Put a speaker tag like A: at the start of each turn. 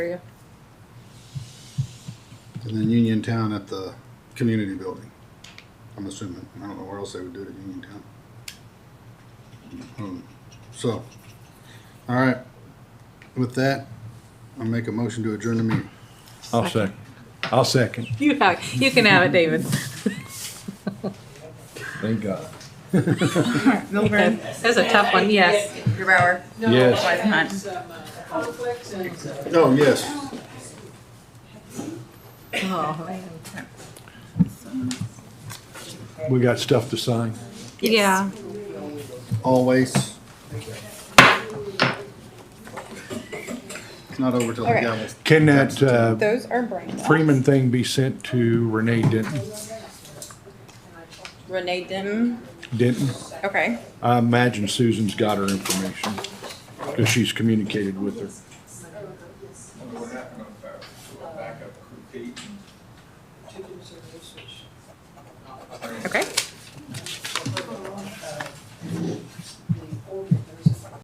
A: area.
B: And then Uniontown at the community building. I'm assuming. I don't know where else they would do it at Uniontown. Um, So, all right. With that, I'll make a motion to adjourn the meeting.
C: I'll second. I'll second.
A: You have, you can have it, David.
C: Thank God.
D: Milburn,
A: That's a tough one, yes.
D: Grubauer,
C: Yes.
D: Hunt.
B: Oh, yes.
A: Oh, man.
C: We got stuff to sign.
A: Yeah.
B: Always. It's not over till the
E: Okay.
B: gavel's
C: Can that uh,
E: Those are brain.
C: Freeman thing be sent to Renee Denton?
E: Renee Denton.
C: Denton?
E: Okay.
C: I imagine Susan's got her information because she's communicated with her.
A: Okay.